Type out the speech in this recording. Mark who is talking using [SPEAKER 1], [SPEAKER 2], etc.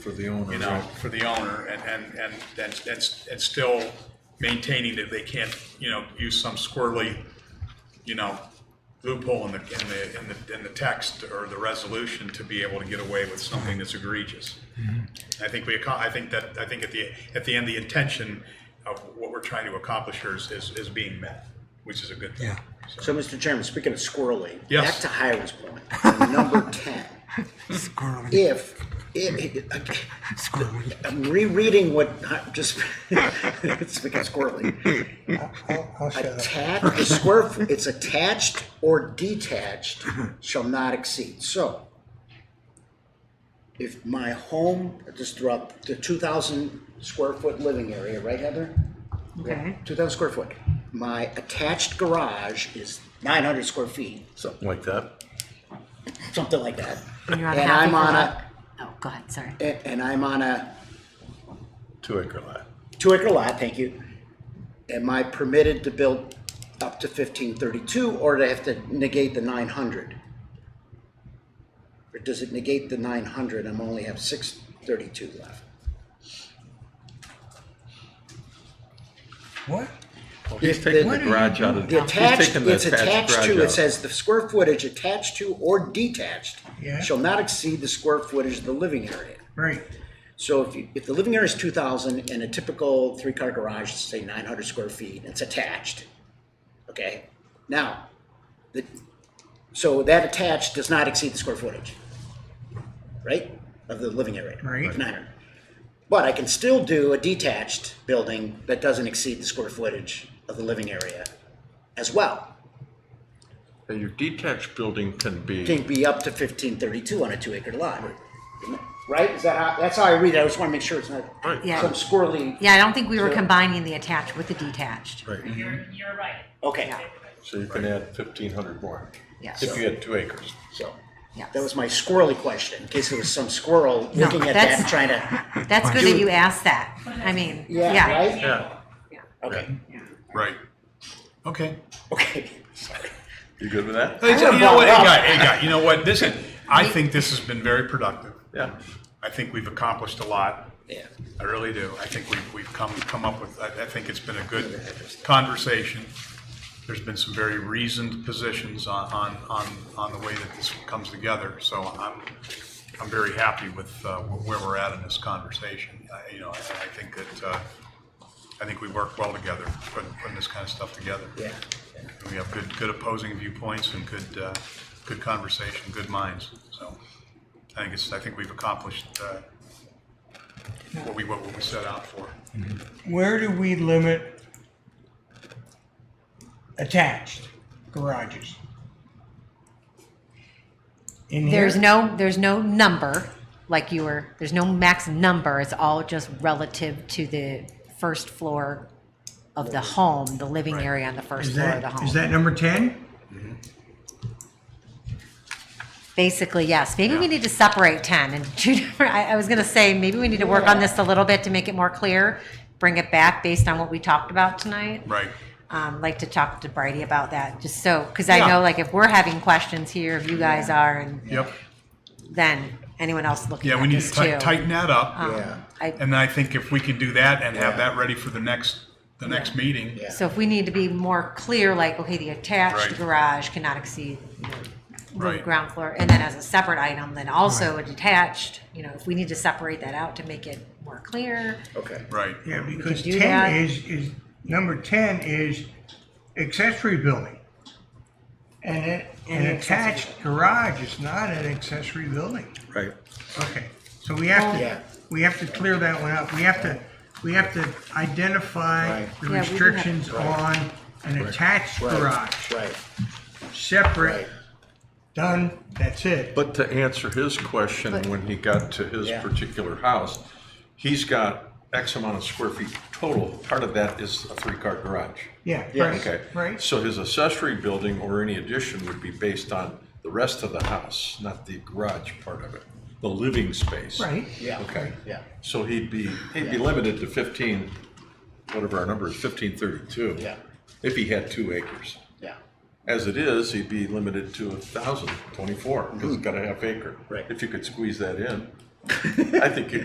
[SPEAKER 1] for the owner,
[SPEAKER 2] you know,
[SPEAKER 1] right?
[SPEAKER 2] for the owner, and, and, and that's, that's, that's still maintaining that they can't, you know, use some squirrely, you know, loophole in the, in the, in the, in the text or the resolution to be able to get away with something that's egregious. I think we, acco- I think that, I think at the, at the end, the intention of what we're trying to accomplish here is, is, is being met, which is a good thing. So-
[SPEAKER 3] So, Mr. Chairman, speaking of squirreling,
[SPEAKER 2] Yes.
[SPEAKER 3] back to Hiram's point, number ten.
[SPEAKER 4] Squirrely,
[SPEAKER 3] If, if,
[SPEAKER 4] squirrely.
[SPEAKER 3] I'm rereading what, I- just, speaking of squirreling.
[SPEAKER 4] I'll, I'll shut up.
[SPEAKER 3] Attached, the square, f- it's attached or detached shall not exceed, so. If my home, just throughout the two thousand square foot living area, right Heather?
[SPEAKER 5] Okay.
[SPEAKER 3] Two thousand square foot, my attached garage is nine hundred square feet,
[SPEAKER 1] Something like that.
[SPEAKER 3] something like that.
[SPEAKER 5] And you're on
[SPEAKER 3] And
[SPEAKER 5] half
[SPEAKER 3] I'm on
[SPEAKER 5] acre lot. Oh, go ahead, sorry.
[SPEAKER 3] And, and I'm on a
[SPEAKER 1] Two acre lot.
[SPEAKER 3] two acre lot, thank you. Am I permitted to build up to fifteen thirty-two or do I have to negate the nine hundred? Or does it negate the nine hundred? I'm only have six thirty-two left.
[SPEAKER 4] What?
[SPEAKER 1] Well, he's
[SPEAKER 3] If
[SPEAKER 1] taking
[SPEAKER 3] the-
[SPEAKER 1] the garage out of.
[SPEAKER 3] The
[SPEAKER 1] he's
[SPEAKER 3] attached,
[SPEAKER 1] taking the
[SPEAKER 3] it's attached
[SPEAKER 1] garage
[SPEAKER 3] to,
[SPEAKER 1] out.
[SPEAKER 3] it says the square footage attached to or detached
[SPEAKER 4] Yeah.
[SPEAKER 3] shall not exceed the square footage of the living area.
[SPEAKER 4] Right.
[SPEAKER 3] So if you, if the living area is two thousand and a typical three-car garage is say nine hundred square feet, and it's attached, okay? Now, the, so that attached does not exceed the square footage, right, of the living area?
[SPEAKER 4] Right.
[SPEAKER 3] Nine hundred. But I can still do a detached building that doesn't exceed the square footage of the living area as well.
[SPEAKER 1] And Your detached building can
[SPEAKER 3] Can
[SPEAKER 1] be,
[SPEAKER 3] be up to fifteen thirty-two on a two-acre lot, right? Is that how, that's how I read it, I just wanna make sure it's not
[SPEAKER 1] Right.
[SPEAKER 5] Yeah.
[SPEAKER 3] some squirrely
[SPEAKER 5] Yeah, I don't think we were combining the attached with the detached.
[SPEAKER 1] right,
[SPEAKER 6] You're, you're right.
[SPEAKER 3] Okay,
[SPEAKER 1] so you can add fifteen hundred more.
[SPEAKER 5] Yeah.
[SPEAKER 1] If you had two acres.
[SPEAKER 3] so,
[SPEAKER 5] Yeah.
[SPEAKER 3] that was my squirrely question, in case there was some squirrel
[SPEAKER 5] No,
[SPEAKER 3] looking at that
[SPEAKER 5] that's-
[SPEAKER 3] and trying to,
[SPEAKER 5] That's good that you asked that. I mean,
[SPEAKER 3] Yeah,
[SPEAKER 5] yeah.
[SPEAKER 3] right?
[SPEAKER 1] Yeah.
[SPEAKER 3] okay,
[SPEAKER 2] Right. Okay.
[SPEAKER 3] okay.
[SPEAKER 1] You good with that?
[SPEAKER 2] Hey,
[SPEAKER 3] would've
[SPEAKER 2] You know
[SPEAKER 3] bought
[SPEAKER 2] what,
[SPEAKER 3] it
[SPEAKER 2] hey,
[SPEAKER 3] up.
[SPEAKER 2] guy, hey, guy, you know what, this is, I think this has been very productive.
[SPEAKER 1] Yeah.
[SPEAKER 2] I think we've accomplished a lot.
[SPEAKER 3] Yeah,
[SPEAKER 2] I really do. I think we've, we've come, come up with, I, I think it's been a good conversation. There's been some very reasoned positions on, on, on, on the way that this comes together. So I'm, I'm very happy with, uh, where we're at in this conversation. I- You know, I, I think that, uh, I think we work well together, putting, putting this kind of stuff together.
[SPEAKER 3] yeah,
[SPEAKER 2] We have good, good opposing viewpoints and good, uh, good conversation, good minds, so I think it's, I think we've accomplished, uh, what we, what we set out for.
[SPEAKER 4] Where do we limit attached garages? In here?
[SPEAKER 5] There's no, there's no number, like you were, there's no max number. It's all just relative to the first floor of the home, the living area on the first
[SPEAKER 4] Is
[SPEAKER 5] floor of the
[SPEAKER 4] that,
[SPEAKER 5] home.
[SPEAKER 4] is that number ten?
[SPEAKER 5] Basically, yes. Maybe we need to separate 10 and two different, I, I was gonna say, maybe we need to work on this a little bit to make it more clear, bring it back based on what we talked about tonight.
[SPEAKER 2] Right,
[SPEAKER 5] Um, like to talk to Brady about that, just so, because I
[SPEAKER 2] Yeah.
[SPEAKER 5] know like if we're having questions here, if you guys are, and
[SPEAKER 2] yep.
[SPEAKER 5] then anyone else looking
[SPEAKER 2] Yeah, we
[SPEAKER 5] at
[SPEAKER 2] need to
[SPEAKER 5] this
[SPEAKER 2] ti-
[SPEAKER 5] too.
[SPEAKER 2] tighten that up,
[SPEAKER 3] yeah,
[SPEAKER 5] I,
[SPEAKER 2] and then I think if we can do that and have that ready for the next, the next meeting.
[SPEAKER 3] Yeah.
[SPEAKER 5] so if we need to be more clear, like, okay, the attached
[SPEAKER 2] Right.
[SPEAKER 5] garage cannot exceed the
[SPEAKER 2] Right.
[SPEAKER 5] ground floor, and then as a separate item, then also a detached, you know, if we need to separate that out to make it more clear.
[SPEAKER 3] okay.
[SPEAKER 2] Right,
[SPEAKER 4] Yeah, because
[SPEAKER 5] do that.
[SPEAKER 4] ten is, is, number ten is accessory building. And it, an attached garage is not an accessory building.
[SPEAKER 1] Right.
[SPEAKER 4] Okay, so we have
[SPEAKER 3] Yeah.
[SPEAKER 4] to, we have to clear that one up. We have to, we have to identify
[SPEAKER 3] Right.
[SPEAKER 4] the
[SPEAKER 5] Yeah, we do have-
[SPEAKER 4] restrictions on an attached
[SPEAKER 3] Right,
[SPEAKER 4] garage,
[SPEAKER 3] Right,
[SPEAKER 4] separate,
[SPEAKER 3] right,
[SPEAKER 4] done, that's it.
[SPEAKER 1] But to answer his question, when he got to his
[SPEAKER 3] Yeah.
[SPEAKER 1] particular house, he's got X amount of square feet total. Part of that is a three-car garage.
[SPEAKER 4] Yeah,
[SPEAKER 3] Yeah.
[SPEAKER 1] Okay.
[SPEAKER 4] right, right.
[SPEAKER 1] So his accessory building or any addition would be based on the rest of the house, not the garage part of it, the living space.
[SPEAKER 4] Right.
[SPEAKER 3] yeah,
[SPEAKER 1] Okay.
[SPEAKER 3] yeah,
[SPEAKER 1] So he'd be, he'd be limited to fifteen, whatever our number is, fifteen thirty-two.
[SPEAKER 3] Yeah.
[SPEAKER 1] If he had two acres.
[SPEAKER 3] yeah,
[SPEAKER 1] As it is, he'd be limited to a thousand twenty-four, because he's got a half acre.
[SPEAKER 3] Hmm. Right.
[SPEAKER 1] If you could squeeze that in, I think you